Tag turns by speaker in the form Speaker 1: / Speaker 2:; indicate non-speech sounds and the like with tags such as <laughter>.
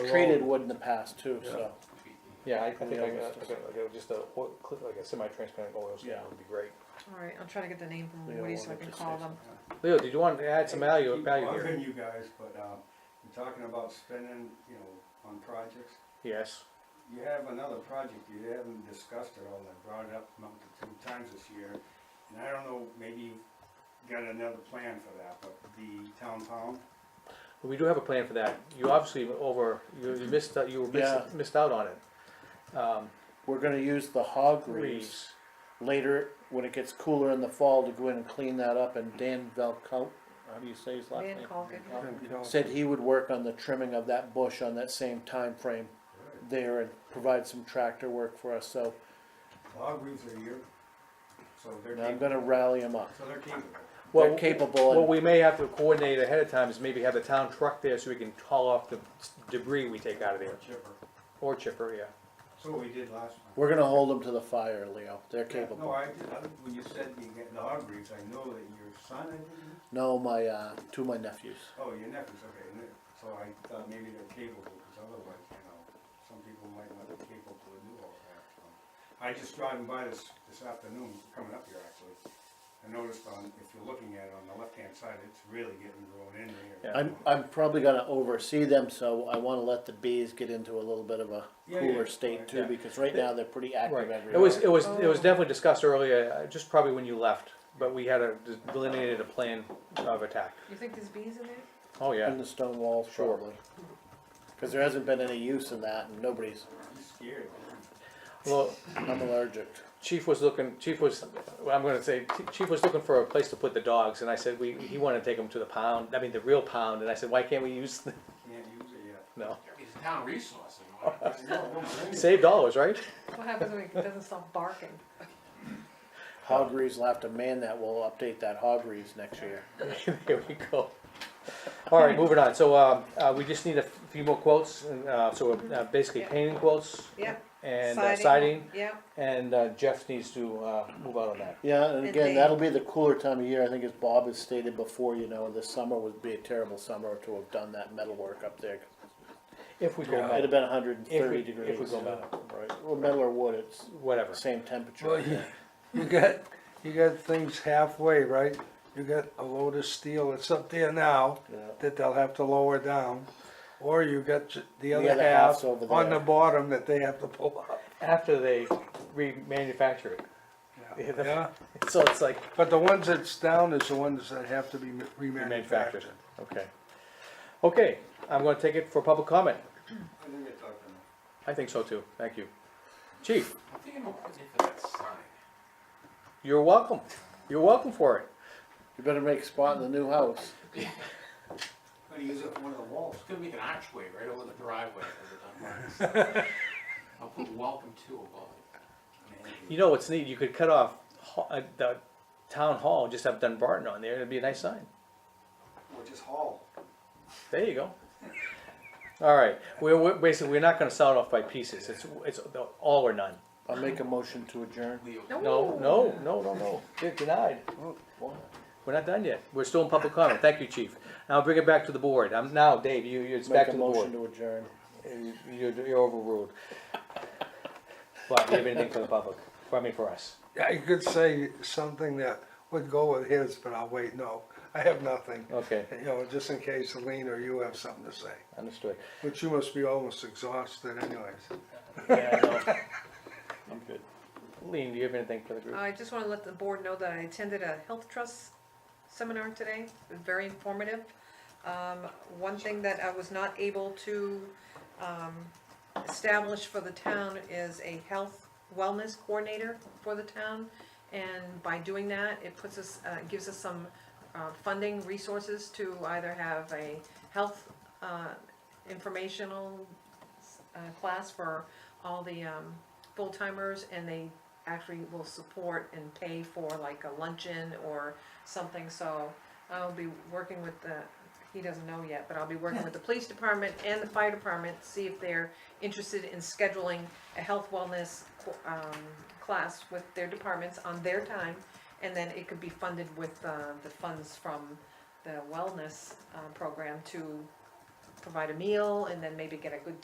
Speaker 1: treated wood in the past too, so, yeah,
Speaker 2: I think
Speaker 1: yeah,
Speaker 2: I got,
Speaker 1: let's
Speaker 2: I
Speaker 1: just-
Speaker 2: got, I got just a, oil- like a semi-transparent oil stain
Speaker 1: Yeah.
Speaker 2: would be great.
Speaker 3: Alright, I'm trying to get the name from
Speaker 1: Leo
Speaker 3: Woody so I
Speaker 1: wanted
Speaker 3: can
Speaker 1: to
Speaker 3: call
Speaker 1: say
Speaker 3: them.
Speaker 4: Leo, did you want to add some value,
Speaker 5: Keep
Speaker 4: value here?
Speaker 5: bugging
Speaker 1: <laughs>
Speaker 5: you guys, but, um, you're talking about spending, you know, on projects.
Speaker 4: Yes,
Speaker 5: You have another project you haven't discussed at all, I brought it up about two times this year, and I don't know, maybe you've got another plan for that, but the town pound,
Speaker 4: we do have a plan for that. You obviously were over, you you missed, out- you were
Speaker 1: Yeah.
Speaker 4: missed, missed out on it. Um,
Speaker 1: We're gonna use the hog reeves
Speaker 4: Reeves,
Speaker 1: later, when it gets cooler in the fall, to go in and clean that up, and Dan Velkout, how do you say his last
Speaker 3: Van
Speaker 1: name?
Speaker 3: Colgan.
Speaker 1: Said he would work on the trimming of that bush on that same time frame there and provide some tractor work for us, so
Speaker 5: log roofs are here, so they're
Speaker 1: I'm
Speaker 5: capable,
Speaker 1: gonna rally him up.
Speaker 5: so they're capable.
Speaker 1: They're
Speaker 4: Well,
Speaker 1: capable
Speaker 4: What
Speaker 1: and
Speaker 4: we may have to coordinate ahead of time is maybe have the town truck there so we can haul off the s- debris we take out of there,
Speaker 5: Chipper,
Speaker 4: or chipper, yeah.
Speaker 5: so we did last time.
Speaker 1: we're gonna hold them to the fire, Leo, they're
Speaker 5: No,
Speaker 1: capable.
Speaker 5: I, did- I- when you said you get the hog roofs, I know that your son, I think,
Speaker 1: No, my, uh, two of my nephews.
Speaker 5: Oh, your nephew's, okay, and it- so I thought maybe they're capable, because otherwise, you know, some people might not be capable to do all that, so. I just driving by this, this afternoon, coming up here actually, I noticed on, if you're looking at it on the left-hand side, it's really getting grown in here.
Speaker 4: Yeah.
Speaker 1: I'm, I'm probably gonna oversee them, so I wanna let the bees get into a little bit of a
Speaker 5: Yeah, yeah,
Speaker 1: cooler state too,
Speaker 4: yeah.
Speaker 1: because right now they're pretty
Speaker 4: Right,
Speaker 1: active
Speaker 4: it was,
Speaker 1: everywhere.
Speaker 4: it was, it was definitely discussed earlier, uh, just probably when you left, but we had a delineated a plan of attack.
Speaker 3: You think there's bees in there?
Speaker 4: Oh,
Speaker 1: In
Speaker 4: yeah,
Speaker 1: the stone walls
Speaker 4: Sure.
Speaker 1: probably. Cause there hasn't been any use in that and nobody's,
Speaker 5: I'm scared.
Speaker 4: well,
Speaker 1: I'm allergic.
Speaker 4: Chief was looking, Chief was, well, I'm gonna say, Chief was looking for a place to put the dogs, and I said, we, he wanted to take them to the pound, I mean, the real pound, and I said, why can't we use, the-" <laughs>
Speaker 5: Can't use it yet.
Speaker 4: no,
Speaker 6: It's a town resource, you know.
Speaker 5: <laughs> I know, don't bring it.
Speaker 4: save dollars, right? <laughs>
Speaker 3: What happens when it doesn't stop barking?
Speaker 1: Hog Reeves will have to man that, we'll update that Hog Reeves next year.
Speaker 4: There we go. All right, moving on, so, um, uh, we just need a few more quotes, and, uh, so, uh, basically
Speaker 3: Yeah.
Speaker 4: painting quotes
Speaker 3: Yeah.
Speaker 4: and uh, siding,
Speaker 3: Yeah,
Speaker 4: and uh, Jeff needs to, uh, move out on that.
Speaker 1: Yeah, and
Speaker 3: And
Speaker 1: again,
Speaker 3: they-
Speaker 1: that'll be the cooler time of year, I think as Bob has stated before, you know, this summer would be a terrible summer to have done that metal work up there.
Speaker 4: If we go,
Speaker 1: It'd have
Speaker 4: metal,
Speaker 1: been hundred and
Speaker 4: If we-
Speaker 1: thirty
Speaker 4: if we
Speaker 1: degrees.
Speaker 4: go
Speaker 1: yeah.
Speaker 4: metal.
Speaker 1: Right, well, metal or wood, it's
Speaker 4: whatever,
Speaker 1: same temperature.
Speaker 7: Well, you, you got, you got things halfway, right? You got a load of steel that's up there now
Speaker 1: Yeah.
Speaker 7: that they'll have to lower down. Or you got j- the other
Speaker 1: other half's
Speaker 7: half
Speaker 1: over
Speaker 7: on
Speaker 1: there.
Speaker 7: the bottom that they have to pull up.
Speaker 4: after they remanufacture it. <laughs> Yeah, the-
Speaker 7: Yeah,
Speaker 4: So it's like,
Speaker 7: but the ones that's down is the ones that have to be ma-
Speaker 4: manufactured,
Speaker 7: remanufactured.
Speaker 4: okay. Okay, I'm gonna take it for public comment.
Speaker 5: I think I talked enough.
Speaker 4: I think so too, thank you. Chief,
Speaker 6: I'm thinking about putting it for that sign.
Speaker 4: you're welcome, you're welcome for it.
Speaker 1: You better make a spot in the new house.
Speaker 5: Gonna use it for one of the walls.
Speaker 6: It's gonna make an archway right over the driveway of the I'll put welcome to above it.
Speaker 4: You know what's neat, you could cut off ho- uh, the town hall, just have Dunbarton on there, it'd be a nice sign.
Speaker 5: Or just haul.
Speaker 4: There you go. All right, we're, we're, basically, we're not gonna sound off by pieces, it's, it's the all or none.
Speaker 1: I'll make a motion to adjourn.
Speaker 6: Leo.
Speaker 4: No, no, no, no, no, you're denied. We're not done yet, we're still in public comment, thank you, chief. Now bring it back to the board, I'm, now, Dave, you, you it's back
Speaker 1: Make
Speaker 4: to
Speaker 1: a
Speaker 4: the
Speaker 1: motion
Speaker 4: board.
Speaker 1: to adjourn.
Speaker 4: You- You're, you're overruled. But do you have anything for the public, I mean, for us?
Speaker 7: Yeah, I could say something that would go with his, but I'll wait, no, I have nothing.
Speaker 4: Okay,
Speaker 7: You know, just in case Lean or you have something to say,
Speaker 4: understood.
Speaker 7: but you must be almost exhausted anyways.
Speaker 4: Yeah, I know. I'm good. Lean, do you have anything for the group?
Speaker 3: I just wanna let the board know that I attended a health trust seminar today, It was very informative. Um, one thing that I was not able to, um, establish for the town is a health wellness coordinator for the town. And by doing that, it puts us, uh, gives us some, uh, funding resources to either have a health, uh, informational, uh, class for all the, um, full timers and they actually will support and pay for like a luncheon or something, so I'll be working with the, he doesn't know yet, but I'll be working with the police department and the fire department, see if they're interested in scheduling a health wellness, um, class with their departments on their time, and then it could be funded with, uh, the funds from the wellness, uh, program to provide a meal and then maybe get a good